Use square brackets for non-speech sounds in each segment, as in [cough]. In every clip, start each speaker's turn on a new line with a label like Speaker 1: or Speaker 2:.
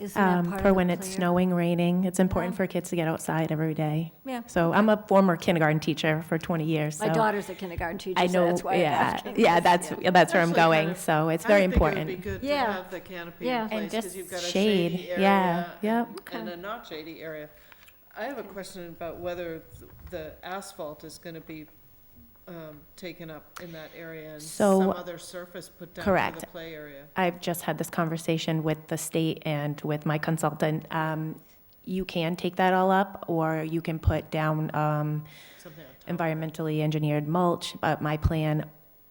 Speaker 1: Isn't that
Speaker 2: um,
Speaker 1: part of
Speaker 2: for
Speaker 1: the
Speaker 2: when it's
Speaker 1: clear?
Speaker 2: snowing, raining. It's important
Speaker 1: Yeah.
Speaker 2: for kids to get outside every day.
Speaker 1: Yeah.
Speaker 2: So I'm a former kindergarten teacher for 20 years, so.
Speaker 1: My daughter's a kindergarten teacher,
Speaker 2: I
Speaker 1: so
Speaker 2: know,
Speaker 1: that's why I'm
Speaker 2: yeah,
Speaker 1: asking.
Speaker 2: yeah,
Speaker 1: this.
Speaker 2: that's, yeah, that's where I'm
Speaker 3: Actually, kind
Speaker 2: going,
Speaker 3: of-
Speaker 2: so it's
Speaker 3: I
Speaker 2: very
Speaker 3: think
Speaker 2: important.
Speaker 3: It would be good to
Speaker 1: Yeah.
Speaker 3: have the canopy
Speaker 1: Yeah.
Speaker 3: in
Speaker 1: And
Speaker 3: place because
Speaker 2: just
Speaker 3: you've got a
Speaker 2: shade,
Speaker 3: shady area.
Speaker 2: yeah, yep.
Speaker 3: and- And a not shady area. I have a question about whether th- the asphalt is gonna be, um, taken up in that area and
Speaker 2: So-
Speaker 3: some other surface put down for the
Speaker 2: Correct.
Speaker 3: play area.
Speaker 2: I've just had this conversation with the state and with my consultant. Um, You can take that all up, or you can put down um,
Speaker 3: Something on top.
Speaker 2: environmentally engineered mulch, but my plan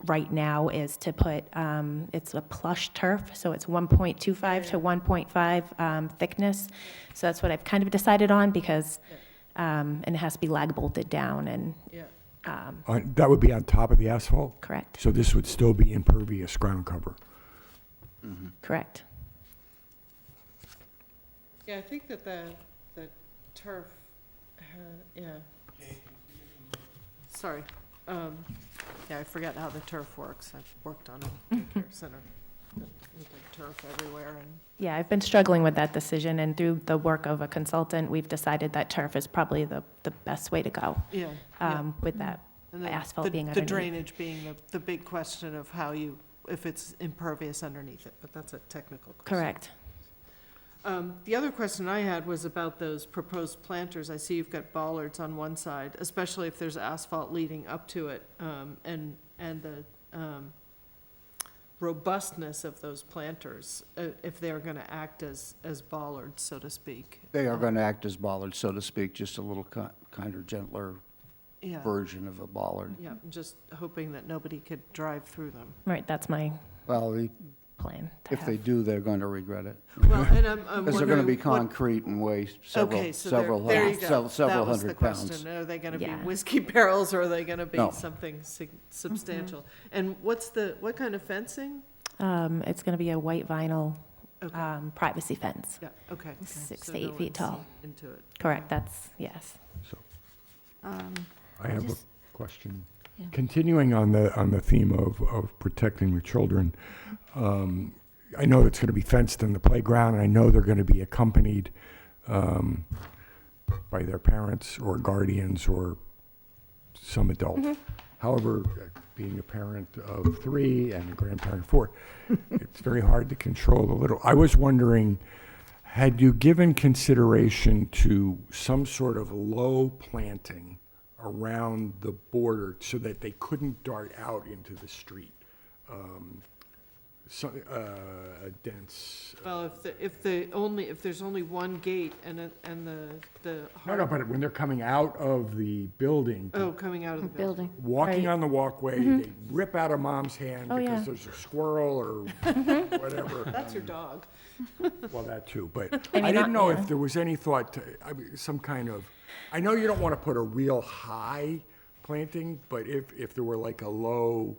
Speaker 2: right now is to put, um, it's a plush turf, so it's 1.25 to 1.5 um, thickness. So that's what I've kind of decided on, because, um, and it has to be lag bolted down and,
Speaker 3: Yeah,
Speaker 2: um,
Speaker 4: On- Uh, That would be on top of the asphalt,
Speaker 2: correct,
Speaker 4: so this would still be impervious ground cover.
Speaker 2: correct.
Speaker 3: yeah, I think that the, the turf, uh, yeah. Sorry, um, yeah, I forgot how the turf works. I've worked on
Speaker 2: [laughs]
Speaker 3: a daycare center. We did turf everywhere and
Speaker 2: Yeah, I've been struggling with that decision, and through the work of a consultant, we've decided that turf is probably the, the best way to go
Speaker 3: Yeah. yeah. Mm-hmm.
Speaker 2: um, with that.
Speaker 3: And then
Speaker 2: asphalt
Speaker 3: the-
Speaker 2: being
Speaker 3: The
Speaker 2: underneath.
Speaker 3: drainage being the, the big question of how you, if it's impervious underneath it, but that's a technical question.
Speaker 2: Correct.
Speaker 3: Um, The other question I had was about those proposed planters. I see you've got bollards on one side, especially if there's asphalt leading up to it, um, and, and the um, robustness of those planters, uh, if they're going to act as, as bollards, so to speak.
Speaker 5: They are going to act as bollards, so to speak, just a little ki- kinder, gentler
Speaker 3: Yeah, Mm-hmm.
Speaker 5: version of a bollard.
Speaker 3: yeah, just hoping that nobody could drive through
Speaker 5: [laughs]
Speaker 3: them.
Speaker 2: Right, that's my
Speaker 5: Well, the-
Speaker 2: plan. to
Speaker 5: if they
Speaker 2: have.
Speaker 5: do, they're going to regret it.
Speaker 3: Well, and I'm, I'm wondering.
Speaker 5: Because they're going to be
Speaker 3: what-
Speaker 5: concrete and weigh
Speaker 3: Okay,
Speaker 5: several,
Speaker 3: so there,
Speaker 5: several,
Speaker 3: there you
Speaker 5: hun-
Speaker 3: go.
Speaker 5: sev- several
Speaker 3: That was the
Speaker 5: hundred pounds.
Speaker 3: question. Are they gonna be
Speaker 2: Yeah. Mm-hmm.
Speaker 3: whiskey [laughs] barrels or are they gonna be
Speaker 5: No.
Speaker 3: something sig- substantial? And what's the, what kind of fencing?
Speaker 2: Um, It's going to be a white vinyl
Speaker 3: Okay,
Speaker 2: um, privacy fence.
Speaker 3: yeah, okay.
Speaker 2: six
Speaker 3: So
Speaker 2: to eight
Speaker 3: no
Speaker 2: feet
Speaker 3: one's
Speaker 2: tall.
Speaker 3: Into it.
Speaker 2: Correct, that's, yes.
Speaker 1: Um,
Speaker 4: I have a
Speaker 1: just-
Speaker 4: question.
Speaker 1: Yeah.
Speaker 4: Continuing on the, on the theme of, of protecting the children, um, I know it's gonna be fenced in the playground, and I know they're gonna be accompanied, um, by their parents or guardians or some adult. However, being a parent of three and a grandparent of four, it's very hard to control the little. I was wondering, had you given consideration to some sort of low planting around the border so that they couldn't dart out into the street? Um, So, uh, a dense,
Speaker 3: Well, if the, if the only, if there's only one gate and, it- and the, the.
Speaker 4: no, no, but when they're coming out of the building,
Speaker 3: Oh, coming out of the building.
Speaker 1: Building.
Speaker 4: walking on the walkway, they rip out of mom's hand
Speaker 2: Mm-hmm. Oh, yeah. Mm-hmm.
Speaker 4: because there's a squirrel or whatever.
Speaker 2: [laughs]
Speaker 3: That's your dog.
Speaker 4: Well, that too, but
Speaker 2: I mean,
Speaker 4: I didn't
Speaker 2: not-
Speaker 4: know
Speaker 2: yeah.
Speaker 4: if there was any thought to, I mean, some kind of, I know you don't want to put a real high planting, but if, if there were like a low,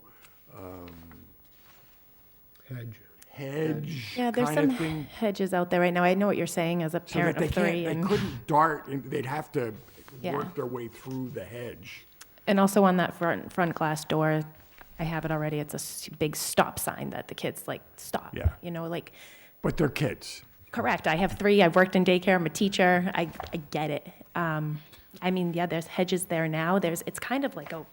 Speaker 4: um. Hedge. Hedge
Speaker 2: Yeah, there's
Speaker 4: kind
Speaker 2: some
Speaker 4: of thing.
Speaker 2: hedges out there right now. I know what you're saying as a
Speaker 4: So that
Speaker 2: parent
Speaker 4: they
Speaker 2: of
Speaker 4: can't,
Speaker 2: three.
Speaker 4: they
Speaker 2: and-
Speaker 4: couldn't dart, and they'd have to
Speaker 2: Yeah.
Speaker 4: work their way through the hedge.
Speaker 2: And also on that front, front glass door, I have it already, it's a s- big stop sign that the kids like, stop.
Speaker 4: Yeah.
Speaker 2: You know, like,
Speaker 4: But they're kids.
Speaker 2: correct, I have three, I've worked in daycare, I'm a teacher, I, I get it. Um, I mean, yeah, there's hedges there now, there's, it's kind of like a,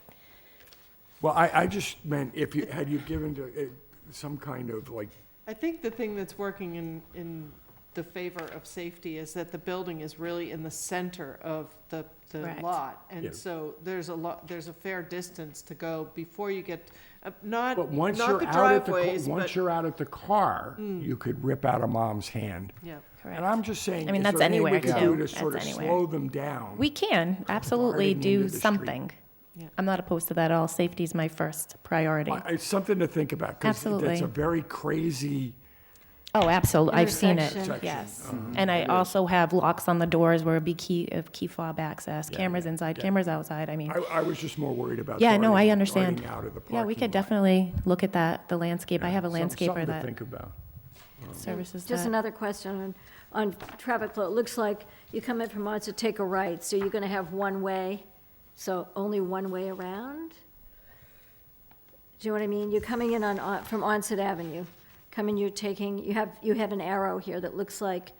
Speaker 4: Well, I, I just meant if you, had you given to, it some kind of like
Speaker 3: I think the thing that's working in, in the favor of safety is that the building is really in the center of the, the
Speaker 2: Correct.
Speaker 3: lot.
Speaker 4: Yeah.
Speaker 3: And so there's a lot, there's a fair distance to go before you get, uh, not,
Speaker 4: But
Speaker 3: not
Speaker 4: once you're
Speaker 3: the
Speaker 4: out at the,
Speaker 3: driveways,
Speaker 4: ca-
Speaker 3: but, Mm.
Speaker 4: once you're out at the car, you could rip out a mom's hand.
Speaker 3: yeah.
Speaker 2: correct.
Speaker 4: And I'm just saying,
Speaker 2: I mean,
Speaker 4: is
Speaker 2: that's
Speaker 4: there any
Speaker 2: anywhere
Speaker 4: we could
Speaker 2: too.
Speaker 4: do to sort of
Speaker 2: That's anywhere.
Speaker 4: slow them down?
Speaker 2: We can absolutely
Speaker 4: Guarding into
Speaker 2: do
Speaker 4: the street.
Speaker 2: something.
Speaker 3: Yeah.
Speaker 2: I'm not opposed to that at all. Safety's my first priority.
Speaker 4: I- It's something to think about, because that's
Speaker 2: Absolutely.
Speaker 4: a very crazy,
Speaker 2: Oh, absolutely. I've seen it.
Speaker 1: Intersection. Mm-hmm.
Speaker 2: Yes.
Speaker 4: uh-huh.
Speaker 2: And I also have locks on the doors where it'd be key, of key fob access, cameras inside, cameras outside. I mean,
Speaker 4: I, I was just more worried about.
Speaker 2: yeah, no, I
Speaker 4: darting-
Speaker 2: understand.
Speaker 4: darting out of the
Speaker 2: Yeah, we
Speaker 4: parking
Speaker 2: could
Speaker 4: lot.
Speaker 2: definitely look at that, the landscape. I have a
Speaker 4: Some-
Speaker 2: landscaper
Speaker 4: Something to
Speaker 2: that
Speaker 4: think about.
Speaker 2: services
Speaker 1: Just
Speaker 2: that.
Speaker 1: another question on, on traffic flow. It looks like you come in from Monza, take a right, so you're gonna have one way, so only one way around? Do you know what I mean? You're coming uh, in on, on- from Onset Avenue, coming, you're taking, you have, you have an arrow here that looks like